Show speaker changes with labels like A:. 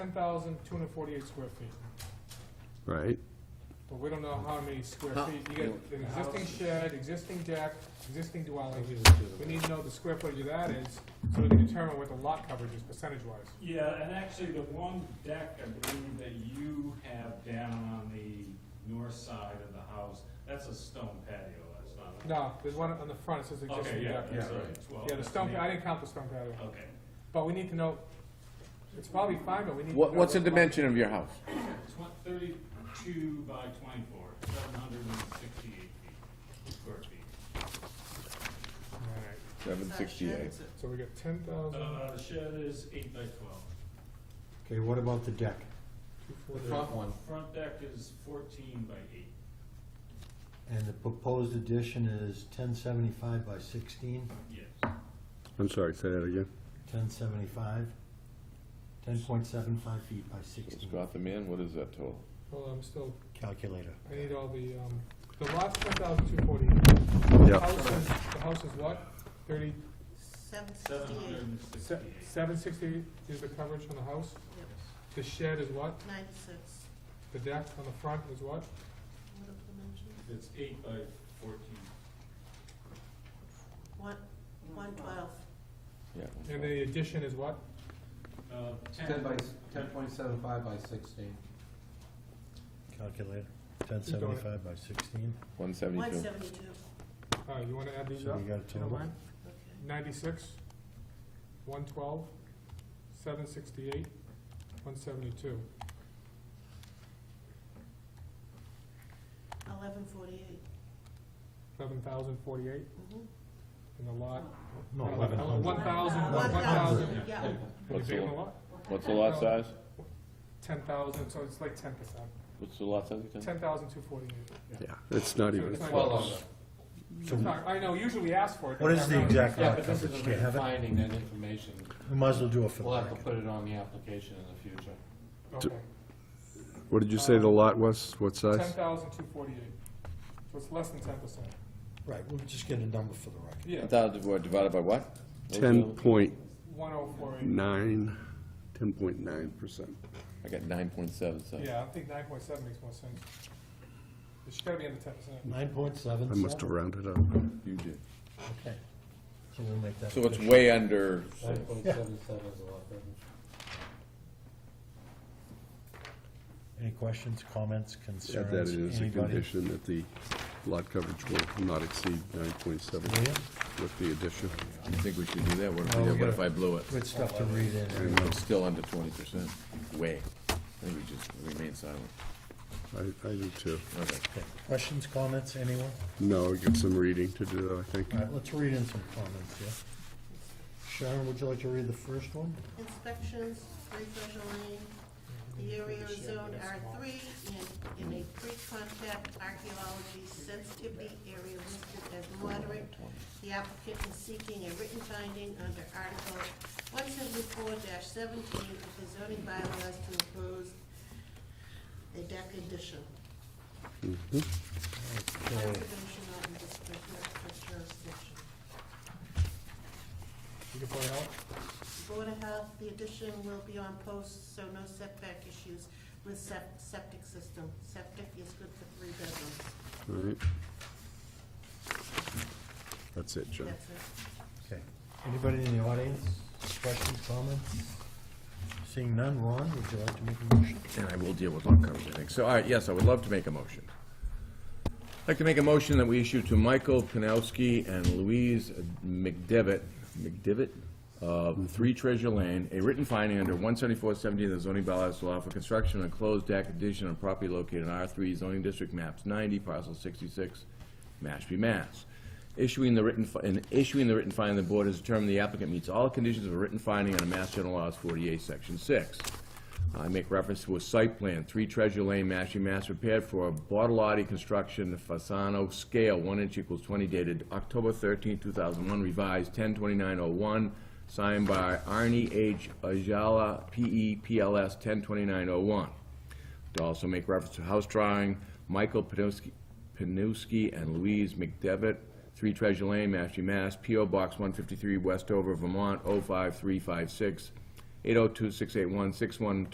A: ten thousand two hundred forty-eight square feet,
B: right?
A: but we don't know how many square
C: Huh.
A: feet. You got an existing shed, existing deck, existing dwelling. We need to know the square footage of that is, so we can determine what the lot coverage is percentage-wise.
D: Yeah, and actually, the one deck, I believe, that you have down on the north side of the house, that's a stone patio, that's not. a-
A: No, there's one on the front, it says
D: Okay,
A: existing
D: yeah,
A: deck.
D: that's
C: Yeah.
D: a twelve.
A: Yeah, the
D: that's
A: stone,
D: an
A: pa- I didn't count the stone patio,
D: eight. Okay,
A: but we need to know, it's probably fine, but we need to know.
C: What, what's the
A: what lot-
C: dimension of your house?
D: Tw- thirty-two by twenty-four, seven hundred and sixty-eight feet, square feet.
A: All right,
C: Seven sixty-eight.
A: So we got ten thousand
D: Uh, the shed is eight by twelve.
E: Okay, what about the deck?
A: two
C: The
A: forty.
C: front one.
D: Front deck is fourteen by eight.
E: And the proposed addition is ten seventy-five by sixteen,
D: Yes.
B: I'm sorry, say that again.
E: ten seventy-five, ten point seven five feet by sixteen.
C: Scott the man, what is that total?
A: Hold on, I'm still,
E: Calculator.
A: I need all the, um, the lot's ten thousand two forty. The
B: Yeah,
A: house is, the house is what? Thirty,
F: Seven
D: Seven hundred
F: sixty-eight,
D: and sixty-eight.
A: seven sixty is the coverage on the house?
F: Yep.
A: The shed is what?
F: ninety-six.
A: The deck on the front is what?
F: What are the dimensions?
D: It's eight by fourteen.
F: One, one twelve.
C: Yeah.
A: And the addition is what?
D: Uh,
G: Ten by, ten point seven five by sixteen.
E: Calculator, ten seventy-five by sixteen,
C: One
F: One
C: seventy-two.
F: seventy-two.
A: All right, Uh, you wanna add these
E: so
A: up?
E: you got a
A: if you don't
E: total.
A: mind? Ninety-six, one twelve, seven sixty-eight, one seventy-two.
F: Eleven forty-eight.
A: Eleven thousand forty-eight in the lot.
E: No, eleven
A: One
E: hundred.
A: thousand, one
F: One thousand,
A: thousand.
F: yeah.
A: Can you
C: What's
A: big
C: the-
A: in the lot?
C: What's the lot size?
A: Ten thousand, so it's like ten percent.
C: What's the lot size again?
A: Ten thousand two forty-eight.
B: yeah, it's not even
A: It's not-
B: close.
E: So
A: It's not- I know, usually we ask for it.
E: What is the exact
G: Yeah,
E: lot
G: but this is
E: coverage? Do you
G: a
E: have it?
G: finding that information.
E: We might as well do it for the
G: We'll have to
E: record.
G: put it on the application in the future.
A: Okay.
B: What did you say the lot was, what
A: Ten
B: size?
A: thousand two forty-eight. So it's less than ten percent.
E: Right, we'll just get a number for the record.
A: Yeah,
C: Thousand divided- divided by what?
B: Ten point
A: one oh four eight.
B: nine, ten point nine percent.
C: I got nine point seven, so.
A: Yeah, I think nine point seven makes more sense. It's gotta be in the ten percent.
E: Nine point seven
B: I
E: seven?
B: must have rounded up.
C: You did.
E: Okay, so we'll make that.
C: So it's
E: official.
C: way under,
G: Nine point seven seven is a lot better.
E: Any questions, comments,
B: Add that
E: concerns,
B: in as a
E: anybody?
B: condition that the lot coverage will not exceed nine point seven
E: Leah?
B: with the addition.
C: I think we should do that, what if,
E: Oh, we
C: yeah, what
E: gotta-
C: if I blew it?
E: Good stuff to read in.
C: I'm still under twenty percent, way. I think we just remain silent.
B: I, I do too.
C: Okay.
E: Okay, Questions, comments, anyone?
B: No, I got some reading to do, I think.
E: All right, let's read in some comments here. Sharon, would you like to read the first one?
F: Inspections, three Treasure Lane. The area is zoned R three and in a pre-contact archaeology sensitivity area listed as moderate. The applicant is seeking a written finding under Article one seventy-four seventeen of the zoning bylaws to impose a deck addition.
B: Mm-hmm.
E: Okay,
F: Conservation of the district jurisdiction.
A: You can point out?
F: Board of Health, the addition will be on posts, so no setback issues with sep- septic system. Septic is good for three bedrooms.
B: All right. That's it, John.
F: That's it.
E: Okay. Anybody in the audience, questions, comments? Seeing none, Ron, would you like to make a motion?
C: And I will deal with lot coverage, I think. So, all right, yes, I would love to make a motion. I'd like to make a motion that we issue to Michael Panowski and Louise McDevitt, McDevitt, of Three Treasure Lane, a written finding under one seventy-four seventy of the zoning bylaws to allow for construction of a closed deck addition on property located in R three zoning district maps ninety, parcel sixty-six, Mashpee, Mass. Issuing the written, fi- and issuing the written finding, the board has determined the applicant meets all conditions of a written finding under Mass General Laws forty-eight, section six. I make reference to a site plan, Three Treasure Lane, Mashpee, Mass, prepared for Bartolotti Construction, Fasano Scale, one inch equals twenty, dated October 13, thousand one, revised ten twenty-nine oh one, signed by Arnie H. Ajala, E P.E., P.L.S., ten twenty-nine oh one. To also make reference to house drawing, Michael Panowski- Panowski and Louise McDevitt, Three Treasure Lane, Mashpee, Mass, P.O. Box oh 153, Westover, Vermont, 05356, 802-681-61